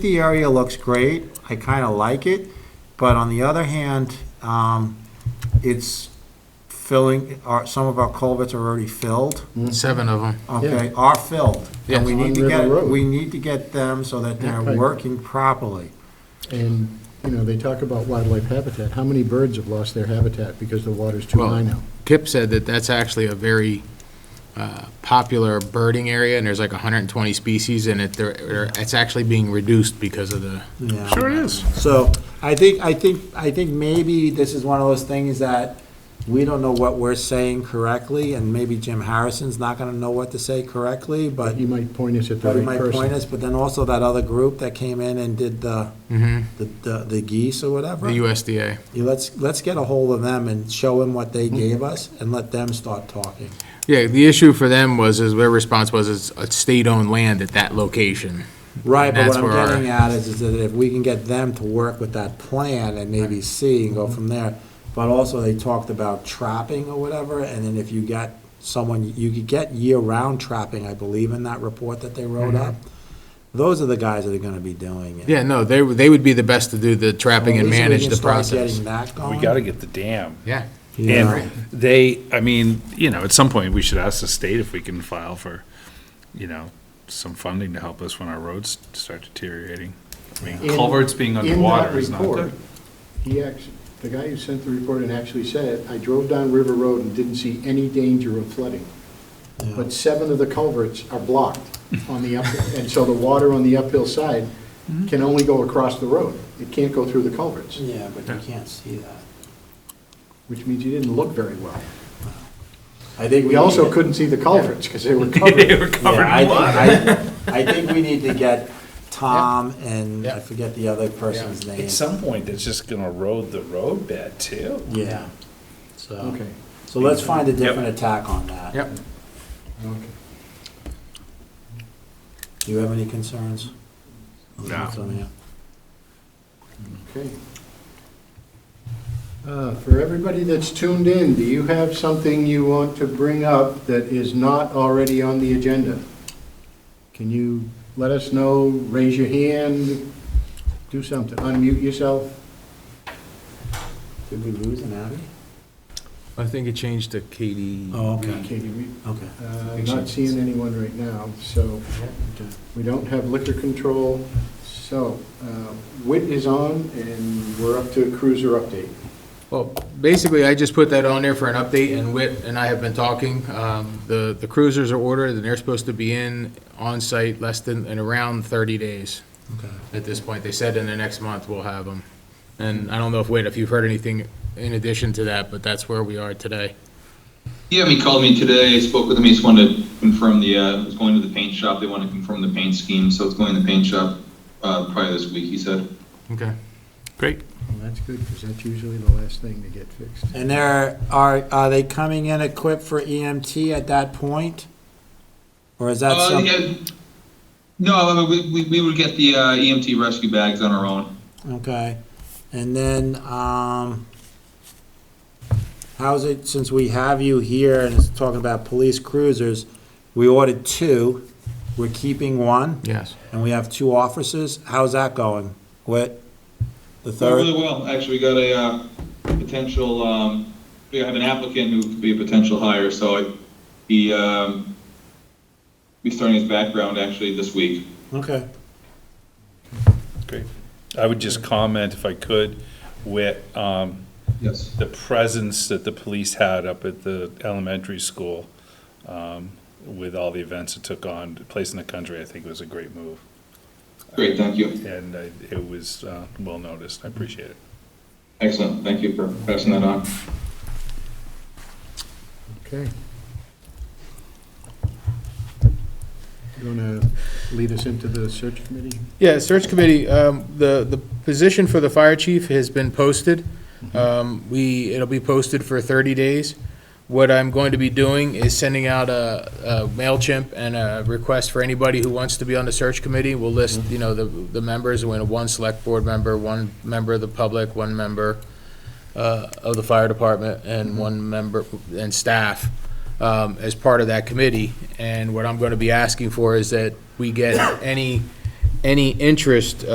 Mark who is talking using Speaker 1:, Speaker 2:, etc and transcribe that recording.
Speaker 1: The area looks great, I kind of like it, but on the other hand, um, it's filling, our, some of our culverts are already filled,
Speaker 2: Seven of them.
Speaker 1: okay, are filled. And we
Speaker 3: Yes.
Speaker 1: need
Speaker 3: On
Speaker 1: to
Speaker 3: River
Speaker 1: get,
Speaker 3: Road.
Speaker 1: we need to get them so that they're
Speaker 3: Yeah, right.
Speaker 1: working properly.
Speaker 3: And, you know, they talk about wildlife habitat. How many birds have lost their habitat because the water's too
Speaker 2: Well-
Speaker 3: high now?
Speaker 2: Kip said that that's actually a very uh, popular birding area, and there's like 120 species, and it, they're- they're- it's actually being reduced because of the.
Speaker 1: Yeah.
Speaker 2: is.
Speaker 1: So I think, I think, I think maybe this is one of those things that we don't know what we're saying correctly, and maybe Jim Harrison's not gonna know what to say correctly, but
Speaker 3: You might point us at the
Speaker 1: But he
Speaker 3: right
Speaker 1: might point
Speaker 3: person.
Speaker 1: us, but then also that other group that came in and did the,
Speaker 2: Mhm.
Speaker 1: the- the, the geese or whatever.
Speaker 2: The USDA.
Speaker 1: Yeah, Let's, let's get a hold of them and show them what
Speaker 2: Mm-hmm.
Speaker 1: they gave us and let them start talking.
Speaker 2: Yeah, the issue for them was, is their response was, it's a state-owned land at that location.
Speaker 1: Right, but what
Speaker 2: That's
Speaker 1: I'm
Speaker 2: where our-
Speaker 1: getting at is, is that if we can get them to work with that plan and maybe see and go
Speaker 2: Mm-hmm.
Speaker 1: from there. But also they talked about trapping or whatever, and then if you got someone, you could get year-round trapping, I believe, in that report that they wrote
Speaker 2: Mm-hmm.
Speaker 1: up. Those are the guys that are gonna be doing it.
Speaker 2: Yeah, no, they, would- they would be the best to do the trapping
Speaker 1: At
Speaker 2: and
Speaker 1: least we
Speaker 2: manage
Speaker 1: can
Speaker 2: the
Speaker 1: start
Speaker 2: process.
Speaker 1: Getting that
Speaker 4: We
Speaker 1: going.
Speaker 4: got to get the dam.
Speaker 2: Yeah.
Speaker 1: Yeah.
Speaker 4: And they, I mean, you know, at some point, we should ask the state if we can file for, you know, some funding to help us when our roads start deteriorating. I mean,
Speaker 3: In-
Speaker 4: culverts being
Speaker 3: in that
Speaker 4: underwater is not
Speaker 3: report,
Speaker 4: good.
Speaker 3: He actually, the guy who sent the report and actually said, I drove down River Road and didn't see any danger of flooding. But seven of the culverts are blocked on the up, and so the water on the uphill side can only go across the road. It can't go through the culverts,
Speaker 1: Yeah, but you can't see that.
Speaker 3: which means you didn't look very well.
Speaker 1: I think
Speaker 3: We also couldn't see the culverts because they were covered.
Speaker 4: They were covered in water.
Speaker 1: I think we need to get Tom and I forget the other person's name.
Speaker 4: At some point, it's just going to erode the road bed too.
Speaker 1: Yeah, so,
Speaker 3: Okay.
Speaker 1: so let's find a different attack on that.
Speaker 2: Yep.
Speaker 3: Okay.
Speaker 1: Do you have any concerns?
Speaker 4: No.
Speaker 3: Okay. Uh, For everybody that's tuned in, do you have something you want to bring up that is not already on the agenda? Can you let us know, raise your hand, do something, unmute yourself?
Speaker 1: Did we lose an Abby?
Speaker 2: I think it changed to Katie.
Speaker 1: Oh, okay,
Speaker 3: Okay, we-
Speaker 1: okay.
Speaker 3: uh, Not seeing anyone right now, so we don't have liquor control. So uh, WIT is on, and we're up to cruiser update.
Speaker 2: Well, basically, I just put that on there for an update, and Whit and I have been talking. Um, The the cruisers are ordered, and they're supposed to be in on-site less than, in around 30 days
Speaker 1: Okay.
Speaker 2: at this point. They said in the next month we'll have them. And I don't know if, Whit, if you've heard anything in addition to that, but that's where we are today.
Speaker 5: Yeah, he called me today, I spoke with him, he just wanted to confirm the, uh, was going to the paint shop, they want to confirm the paint scheme, so it's going to the paint shop, uh, probably this week, he said.
Speaker 2: Okay. Great.
Speaker 3: Well, that's good, because that's usually the last thing to get fixed.
Speaker 1: And there are, are they coming in equipped for EMT at that point? Or is that
Speaker 5: Uh,
Speaker 1: something?
Speaker 5: yeah, no, we, we, we would get the, uh, EMT rescue bags on our own.
Speaker 1: Okay, and then, um, how's it, since we have you here and it's talking about police cruisers, we ordered two, we're keeping one,
Speaker 2: Yes.
Speaker 1: and we have two officers, how's that going? What, the
Speaker 5: Went Really
Speaker 1: third?
Speaker 5: well, actually, we got a, uh, potential, um, we have an applicant who could be a potential hire, so I, he, um, he's starting his background actually this week.
Speaker 1: Okay,
Speaker 4: Great. I would just comment if I could with, um,
Speaker 5: Yes.
Speaker 4: the presence that the police had up at the elementary school um, with all the events it took on, place in the country, I think was a great move.
Speaker 5: Great, thank you.
Speaker 4: And I- it was uh, well noticed. I appreciate it.
Speaker 5: Excellent, thank you for passing that on.
Speaker 3: Okay. You want to lead us into the search committee?
Speaker 2: Yeah, search committee, um, the, the position for the fire chief has been posted. Um, We, it'll be posted for 30 days. What I'm going to be doing is sending out a a MailChimp and a request for anybody who wants to be on the search committee. We'll list, you know, the, the members, we have one select board member, one member of the public, one member uh, of the fire department, and one member, and staff um, as part of that committee. And what I'm going to be asking for is that we get any any interest